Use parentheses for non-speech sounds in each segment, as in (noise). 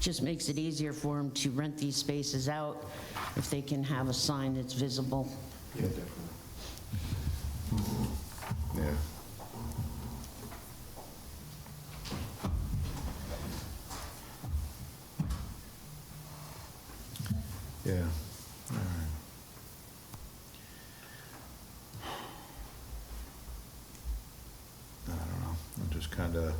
just makes it easier for them to rent these spaces out if they can have a sign that's visible. Yeah, definitely. Yeah. Yeah, all right. I don't know, I'm just kind of,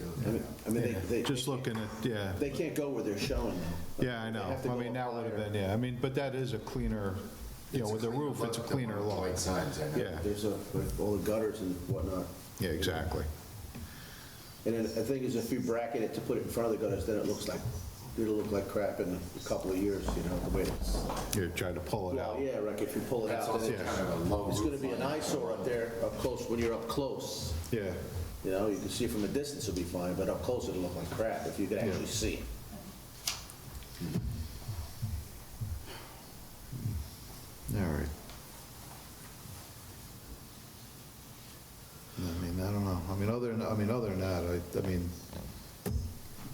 I mean- I mean, they, they, just looking at, yeah. they can't go where they're showing though. Yeah, I They know. have to I go mean, that up would have higher. been, yeah, I mean, but that is a cleaner, you know, with a roof, it's a cleaner law. White signs, I know. Yeah, There's a, with all the gutters and whatnot. yeah, exactly. And then the thing is, if you bracket it to put it in front of the gutters, then it looks like, it'll look like crap in a couple of years, you know, the way it's. You try to pull it out. Well, yeah, like if you pull it That's out, also then kind of a low it's gonna be roof an line. eyesore up there, up close, when you're up close. Yeah, You know, you can see from a distance it'll be fine, but up close it'll look like crap if you could actually Yeah. see it. all right. I mean, I don't know. I mean, other than, I mean, other than that, I, I mean,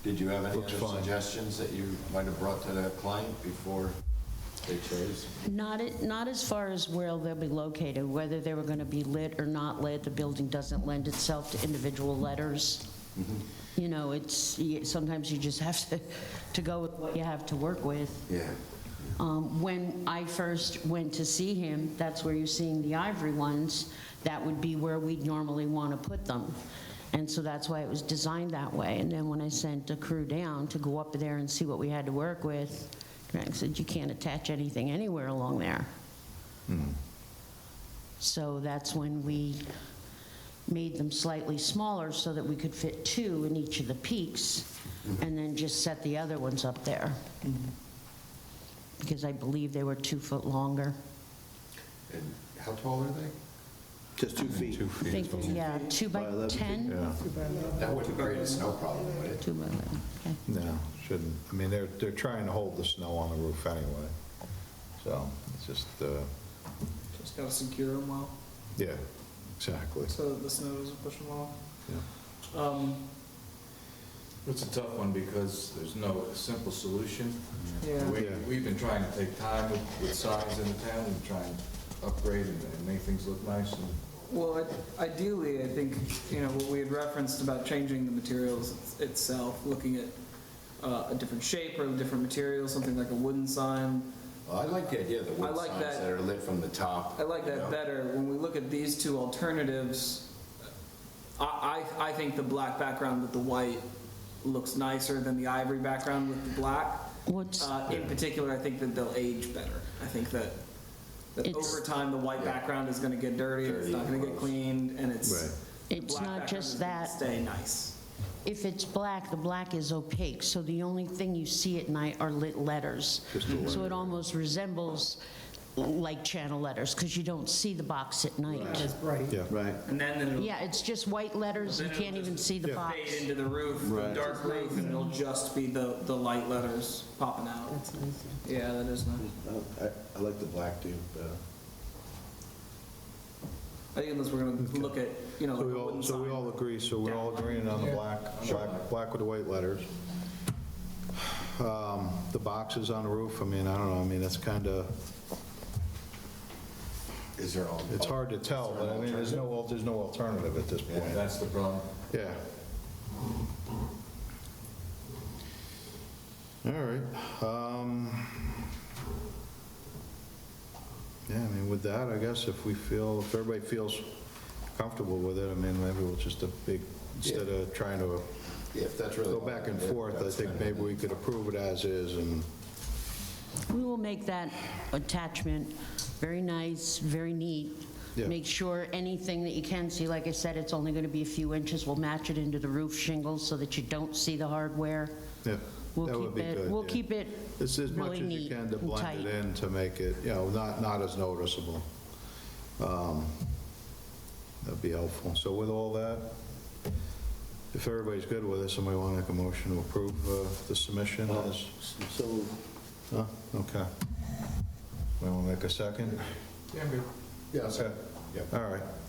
Did you have any Looks other fine. suggestions that you might have brought to that client before they chose? Not, it- not as far as where they'll be located, whether they were going to be lit or not lit, the building doesn't lend itself to individual letters. You know, it's, y- sometimes you just have to, to go with what you have to work with. Yeah. Um, When I first went to see him, that's where you're seeing the ivory ones, that would be where we'd normally want to put them. And so that's why it was designed that way. And then when I sent the crew down to go up there and see what we had to work with, Greg said, you can't attach anything anywhere along there. So that's when we made them slightly smaller so that we could fit two in each of the peaks, and then just set the other ones up there because I believe they were two foot longer. And how tall are they? Just two feet. two I feet. think, yeah, two by By 11 feet, 10? Yeah, Uh, That wouldn't create a snow problem, would it? Two by 11, okay. no, shouldn't. I mean, they're, they're trying to hold the snow on the roof anyway. So it's just, uh, Just gotta secure them well, yeah, exactly. so that the snow doesn't push them off. Yeah. Um, It's a tough one because there's no simple solution. yeah, We- Yeah. We've been trying to take time with- with signs in the town and try and upgrade and and make things look nice and well, i- ideally, I think, you know, what we had referenced about changing the materials itself, looking at uh, a different shape or a different material, something like a wooden sign. Well, I like the idea of the I wood like signs that. Uh, that are lit from the top. I like you know? that better. When we look at these two alternatives, I, I, I think the black background with the white looks nicer than the ivory background with the black. What's, Uh, in particular, I think that they'll age better. I think that, that It's- over time, the white Yeah. background is gonna get dirty, it's Dirty, not gonna get gross. cleaned, and it's. Right. the It's black not background just is gonna that. Stay nice. if it's black, the black is opaque, so the only thing you see at night are lit letters. So it almost resembles like channel letters, because you don't see the box at night. Yeah. Right. And then it'll Yeah, it's just white letters, you can't even see the box. fade into the roof, the Right. dark roof, and it'll just be the, the light letters popping out. That's nice. Yeah, that is nice. I, I like the black too, uh, better. I think unless we're gonna look at, you know, So like we a all, wooden so we all sign. agree, so we're all agreeing on the black, black, black with the white letters. (sighs) Um, The boxes on the roof, I mean, I don't know, I mean, that's kind of, Is there all? it's hard to tell, but I mean, there's no, al- there's no alternative at this Yeah, point. that's the problem. Yeah. All right. um, Yeah, I mean, with that, I guess if we feel, if everybody feels comfortable with it, I mean, maybe we'll just a big, instead of trying to Yeah, If that's really. go back and Yeah, forth, I that's think kind of- maybe we could approve it as is, and, We will make that attachment very nice, very neat. Yeah. Make sure anything that you can see, like I said, it's only going to be a few inches. We'll match it into the roof shingles so that you don't see the hardware. yeah, We'll that would keep be it- good. We'll yeah. keep it It's as much as really you neat can to and blend it tight. in to make it, you know, not, not as noticeable. Um, That'd be helpful. So with all that, if everybody's good with it, somebody want to make a motion to approve uh, the submission as, So, huh? okay. We want to make a second? Yeah, but Yes. All right,